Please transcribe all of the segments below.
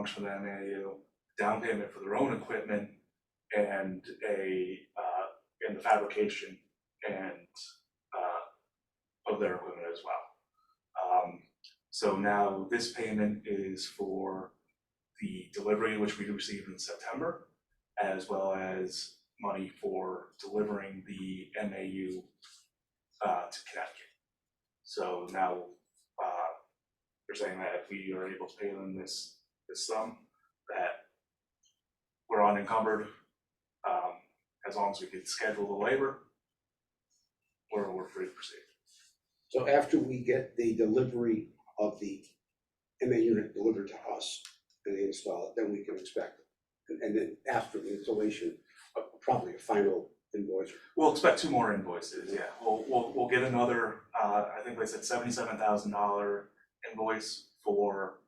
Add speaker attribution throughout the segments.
Speaker 1: loans from the NAU, down payment for their own equipment and a, uh, and the fabrication and, uh, of their equipment as well. Um, so now this payment is for the delivery which we received in September, as well as money for delivering the MAU uh, to Connecticut. So now, uh, they're saying that if we are able to pay them this, this sum, that we're unencumbered, um, as long as we can schedule the labor, we're, we're free to proceed.
Speaker 2: So after we get the delivery of the MA unit delivered to us and they install it, then we can expect. And and then after the installation, uh, probably a final invoice.
Speaker 1: We'll expect two more invoices, yeah, we'll, we'll, we'll get another, uh, I think they said seventy-seven thousand dollar invoice for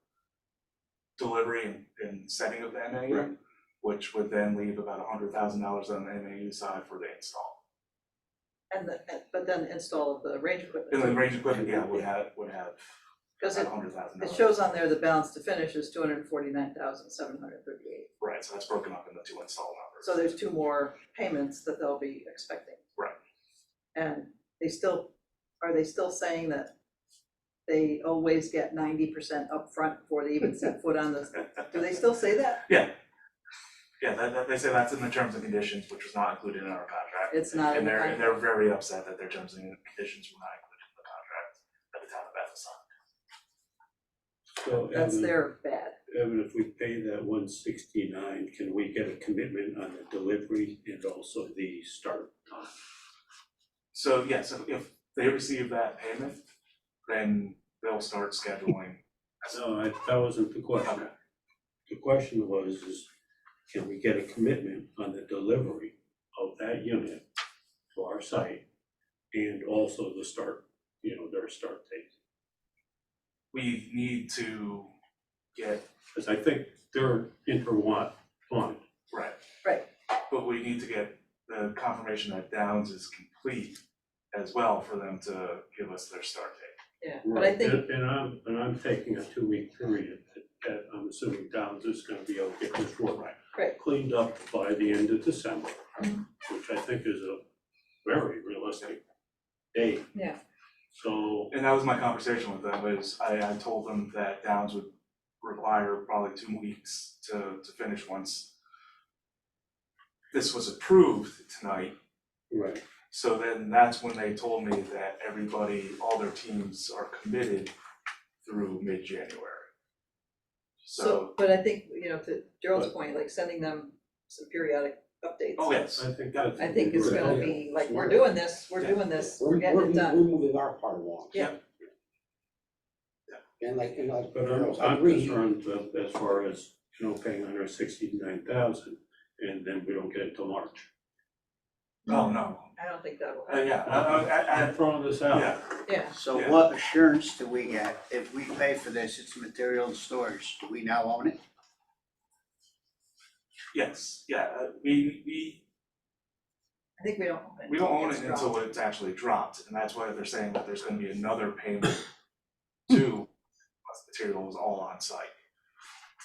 Speaker 1: delivery and, and setting of the MAU,
Speaker 2: Right.
Speaker 1: which would then leave about hundred thousand dollars on the MAU side for the install.
Speaker 3: And the, and- but then install of the range
Speaker 1: And the
Speaker 3: equipment,
Speaker 1: range equipment, yeah, would have, would have
Speaker 3: because
Speaker 1: about
Speaker 3: it,
Speaker 1: a hundred thousand
Speaker 3: it
Speaker 1: dollars.
Speaker 3: shows on there the balance to finish is two hundred and forty-nine thousand seven hundred thirty-eight.
Speaker 1: Right, so that's broken up into two install numbers.
Speaker 3: So there's two more payments that they'll be expecting.
Speaker 1: Right.
Speaker 3: And they still, are they still saying that they always get ninety percent upfront before they even set foot on this? Do they still say that?
Speaker 1: Yeah, that, that, they say that's in the terms and conditions, which was not included in our contract.
Speaker 3: It's not in
Speaker 1: And
Speaker 3: the
Speaker 1: they're, and
Speaker 3: contract.
Speaker 1: they're very upset that their terms and conditions were not included in the contract that the town of Bethel signed.
Speaker 4: So
Speaker 3: That's
Speaker 4: Evan,
Speaker 3: their bad.
Speaker 4: Evan, if we pay that one sixty-nine, can we get a commitment on the delivery and also the start time?
Speaker 1: So, yeah, so if they receive that payment, then they'll start scheduling.
Speaker 4: No, I, that wasn't the question. The question was, is can we get a commitment on the delivery of that unit to our site? And also the start, you know, their start date,
Speaker 1: We need to get,
Speaker 4: because I think they're intertwined.
Speaker 1: right.
Speaker 3: Right.
Speaker 1: But we need to get the confirmation that Downs is complete as well for them to give us their start date.
Speaker 3: Yeah. But I think,
Speaker 4: And and I'm, and I'm taking a two-week period, that- that I'm assuming Downs is gonna be able to get this work
Speaker 3: Right.
Speaker 4: cleaned up by the end of December,
Speaker 3: Mhm.
Speaker 4: which I think is a very realistic date.
Speaker 3: Yeah.
Speaker 4: So,
Speaker 1: And that was my conversation with them, is I, I told them that Downs would require probably two weeks to, to finish once this was approved tonight,
Speaker 4: right,
Speaker 1: so then that's when they told me that everybody, all their teams are committed through mid-January.
Speaker 3: so,
Speaker 1: So,
Speaker 3: but I think, you know, to Gerald's point, like sending them some periodic updates.
Speaker 1: oh yes,
Speaker 4: I think that's.
Speaker 3: I think it's gonna be like, we're doing this, we're doing this, we're getting it
Speaker 2: We're
Speaker 3: done.
Speaker 2: moving our part along.
Speaker 3: Yeah.
Speaker 2: And like, and like,
Speaker 4: But I'm,
Speaker 2: I
Speaker 4: I'm
Speaker 2: agree,
Speaker 4: concerned that as far as, you know, paying under sixty-nine thousand, and then we don't get it till March.
Speaker 1: oh no,
Speaker 3: I don't think that will
Speaker 1: Uh,
Speaker 3: happen.
Speaker 1: yeah, I, I, I,
Speaker 4: I'm throwing this out.
Speaker 1: yeah,
Speaker 3: Yeah,
Speaker 5: So
Speaker 1: Yeah.
Speaker 5: what assurance do we get if we pay for this, it's material and storage, do we now own it?
Speaker 1: yes, yeah, uh, we, we
Speaker 3: I think we don't own it.
Speaker 1: We don't own it
Speaker 3: It's dropped.
Speaker 1: until it's actually dropped, and that's why they're saying that there's gonna be another payment to us material is all on site.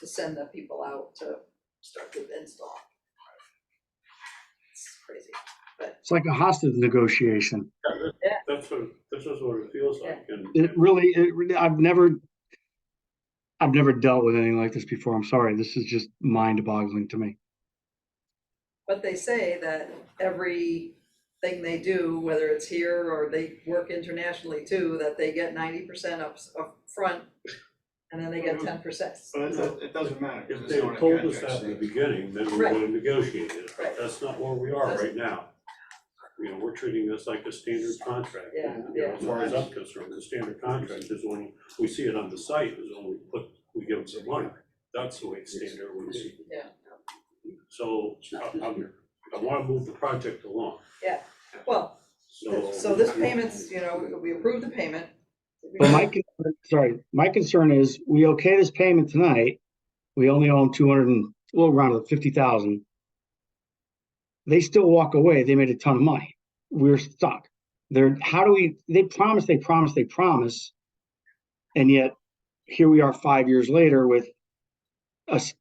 Speaker 3: To send the people out to start the install. It's crazy.
Speaker 6: It's like a hostage negotiation.
Speaker 4: That's what, this is what it feels like, and.
Speaker 6: It really, it really, I've never, I've never dealt with anything like this before. I'm sorry. This is just mind boggling to me.
Speaker 3: But they say that every thing they do, whether it's here or they work internationally too, that they get ninety percent up, up front, and then they get ten percent.
Speaker 4: But
Speaker 7: It it doesn't matter. 'cause
Speaker 4: If
Speaker 7: it's
Speaker 4: they
Speaker 7: not
Speaker 4: had
Speaker 7: a
Speaker 4: told us
Speaker 7: contract
Speaker 4: that in the
Speaker 7: stage.
Speaker 4: beginning, then we would
Speaker 3: Right.
Speaker 4: have negotiated it, but
Speaker 3: Right.
Speaker 4: that's not where we are
Speaker 3: That's-
Speaker 4: right now. You know, we're treating this like a standard contract,
Speaker 3: Yeah,
Speaker 4: and, you know, as far as I'm concerned, the standard contract is when we see it on the site, is when we put, we give them some money. That's the way it's standard would be.
Speaker 3: Yeah.
Speaker 4: So, I, I'm, I wanna move the project along,
Speaker 3: Well,
Speaker 4: so.
Speaker 3: so this payment's, you know, we approve the payment.
Speaker 6: But my, con- sorry, my concern is we okay this payment tonight. We only own 200 and, well, round it up 50,000. They still walk away. They made a ton of money. We're stuck. They're, how do we, they promise, they promise, they promise. And yet here we are five years later with us